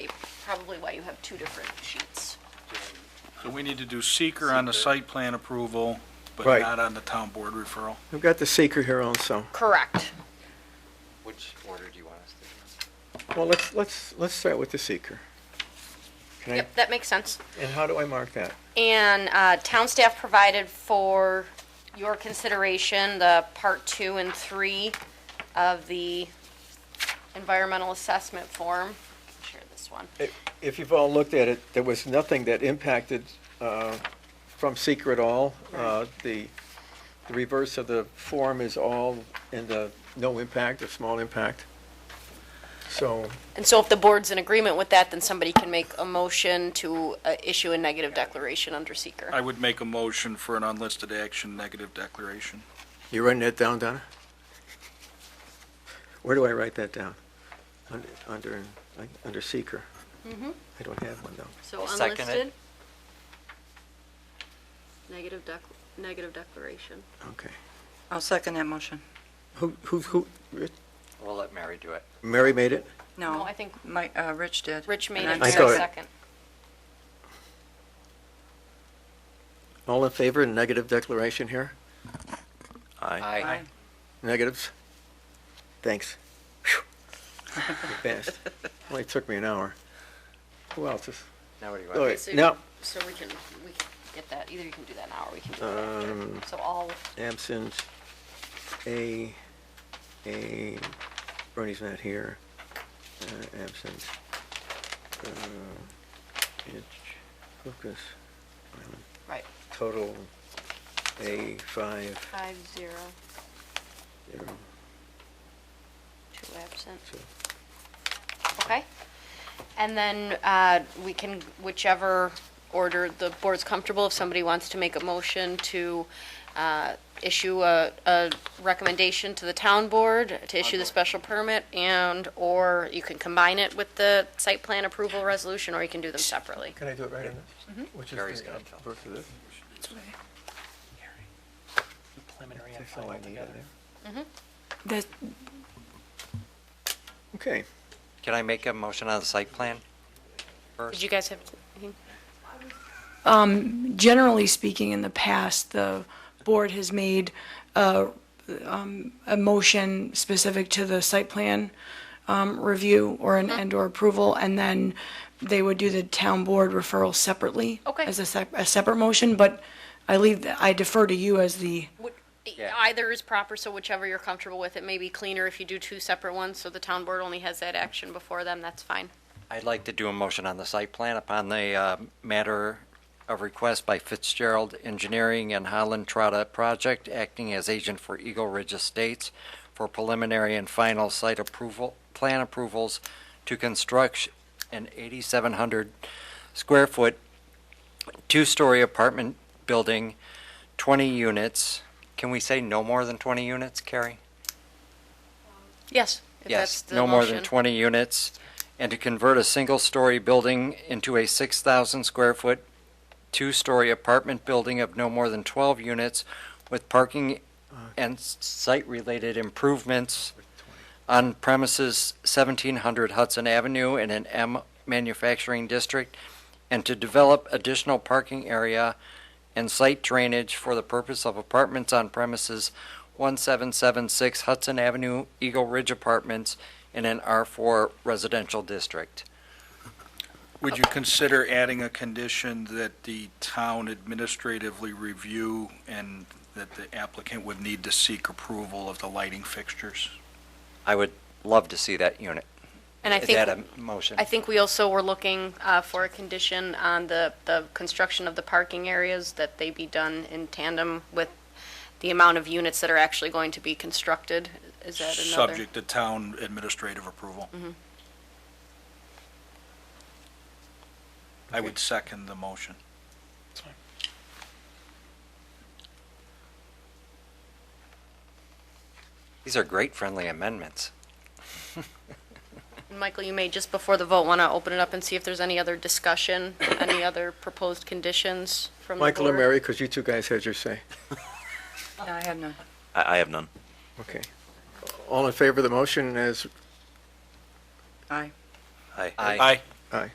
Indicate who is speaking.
Speaker 1: probably why you have two different sheets.
Speaker 2: So we need to do seeker on the site plan approval, but
Speaker 3: Right.
Speaker 2: not on the town board referral.
Speaker 3: We've got the seeker here also.
Speaker 1: Correct.
Speaker 4: Which order do you want us to
Speaker 3: Well, let's, let's, let's start with the seeker. Can I,
Speaker 1: Yep, that makes sense.
Speaker 3: and how do I mark that?
Speaker 1: And uh, town staff provided for your consideration the part two and three of the environmental assessment form. Share this one.
Speaker 3: If- If you've all looked at it, there was nothing that impacted uh, from seeker at all. Uh, The, the reverse of the form is all in the no impact or small impact. So,
Speaker 1: And so if the board's in agreement with that, then somebody can make a motion to uh, issue a negative declaration under seeker.
Speaker 2: I would make a motion for an unlisted action negative declaration.
Speaker 3: you writing that down, Donna? Where do I write that down? Under, under, under seeker? I don't have one, though.
Speaker 1: So
Speaker 4: I'll second it.
Speaker 1: unlisted. Negative dec, negative declaration.
Speaker 3: Okay.
Speaker 5: I'll second that motion.
Speaker 3: Who, who, who,
Speaker 4: do? We'll let Mary do it.
Speaker 3: Mary made it?
Speaker 1: No,
Speaker 5: No,
Speaker 1: Oh, I think
Speaker 5: Mike, uh, Rich did.
Speaker 1: Rich made
Speaker 5: And
Speaker 1: it,
Speaker 5: I
Speaker 3: I
Speaker 1: Mary
Speaker 3: thought it-
Speaker 1: second.
Speaker 3: All in favor, negative declaration here? Aye.
Speaker 5: Aye.
Speaker 3: Negatives? Thanks. Phew. You passed. Only took me an hour. Who else is?
Speaker 4: Now what do you
Speaker 3: All
Speaker 4: want?
Speaker 3: right,
Speaker 1: So-
Speaker 3: No,
Speaker 1: So we can, we can get that, either you can do that now or we can do it
Speaker 3: Um,
Speaker 1: after. So all,
Speaker 3: absent. A, A, Bernie's not here. Uh, Absent. Uh, Itch, Lucas, Island.
Speaker 1: right,
Speaker 3: total A five,
Speaker 1: five, zero,
Speaker 3: zero.
Speaker 1: two absent.
Speaker 3: So-
Speaker 1: Okay. And then uh, we can, whichever order the board's comfortable, if somebody wants to make a motion to uh, issue a, a recommendation to the town board to issue the special permit and, or you can combine it with the site plan approval resolution, or you can do them separately.
Speaker 3: Can I do it right on this? Which is
Speaker 4: Gary's
Speaker 3: the
Speaker 4: gonna tell.
Speaker 3: verse of this?
Speaker 6: preliminary and
Speaker 3: That's all
Speaker 6: final
Speaker 3: I need
Speaker 6: together.
Speaker 3: on there.
Speaker 5: That-
Speaker 3: Okay,
Speaker 4: Can I make a motion on the site plan?
Speaker 1: Did
Speaker 4: First,
Speaker 1: you guys have, anything?
Speaker 7: generally speaking, in the past, the board has made uh, um, a motion specific to the site plan um, review or an and/or approval, and then they would do the town board referral separately
Speaker 1: Okay.
Speaker 7: as a sep- a separate motion, but I leave, I defer to you as the
Speaker 1: Would-
Speaker 4: Yeah.
Speaker 1: Either is proper, so whichever you're comfortable with. It may be cleaner if you do two separate ones, so the town board only has that action before them, that's fine.
Speaker 4: I'd like to do a motion on the site plan upon the uh, matter of request by Fitzgerald Engineering and Holland Trotta Project, acting as agent for Eagle Ridge Estates for preliminary and final site approval, plan approvals to construct an 8,700 square foot, two-story apartment building, 20 units. Can we say no more than 20 units, Carrie?
Speaker 1: Yes. if that's
Speaker 4: Yes,
Speaker 1: the
Speaker 4: no more than
Speaker 1: motion.
Speaker 4: 20 units, and to convert a single-story building into a 6,000-square-foot, two-story apartment building of no more than 12 units with parking and s- site-related improvements on premises 1700 Hudson Avenue in an M manufacturing district, and to develop additional parking area and site drainage for the purpose of apartments on premises 1776 Hudson Avenue, Eagle Ridge Apartments, in an R4 residential district.
Speaker 2: Would you consider adding a condition that the town administratively review and that the applicant would need to seek approval of the lighting fixtures?
Speaker 4: I would love to see that unit.
Speaker 1: And I
Speaker 4: Is that
Speaker 1: think,
Speaker 4: a motion?
Speaker 1: I think we also were looking uh, for a condition on the, the construction of the parking areas, that they be done in tandem with the amount of units that are actually going to be constructed. Is that another? Mm-hmm.
Speaker 2: Subject to town administrative approval. I would second the motion.
Speaker 4: These are great friendly amendments.
Speaker 1: Michael, you may, just before the vote, want to open it up and see if there's any other discussion, any other proposed conditions from the board?
Speaker 3: Michael or Mary, because you two guys had your say.
Speaker 5: No, I have none.
Speaker 8: I, I have none.
Speaker 3: Okay. All in favor of the motion as
Speaker 5: Aye.
Speaker 8: Aye.
Speaker 4: I
Speaker 2: Aye.
Speaker 3: uh,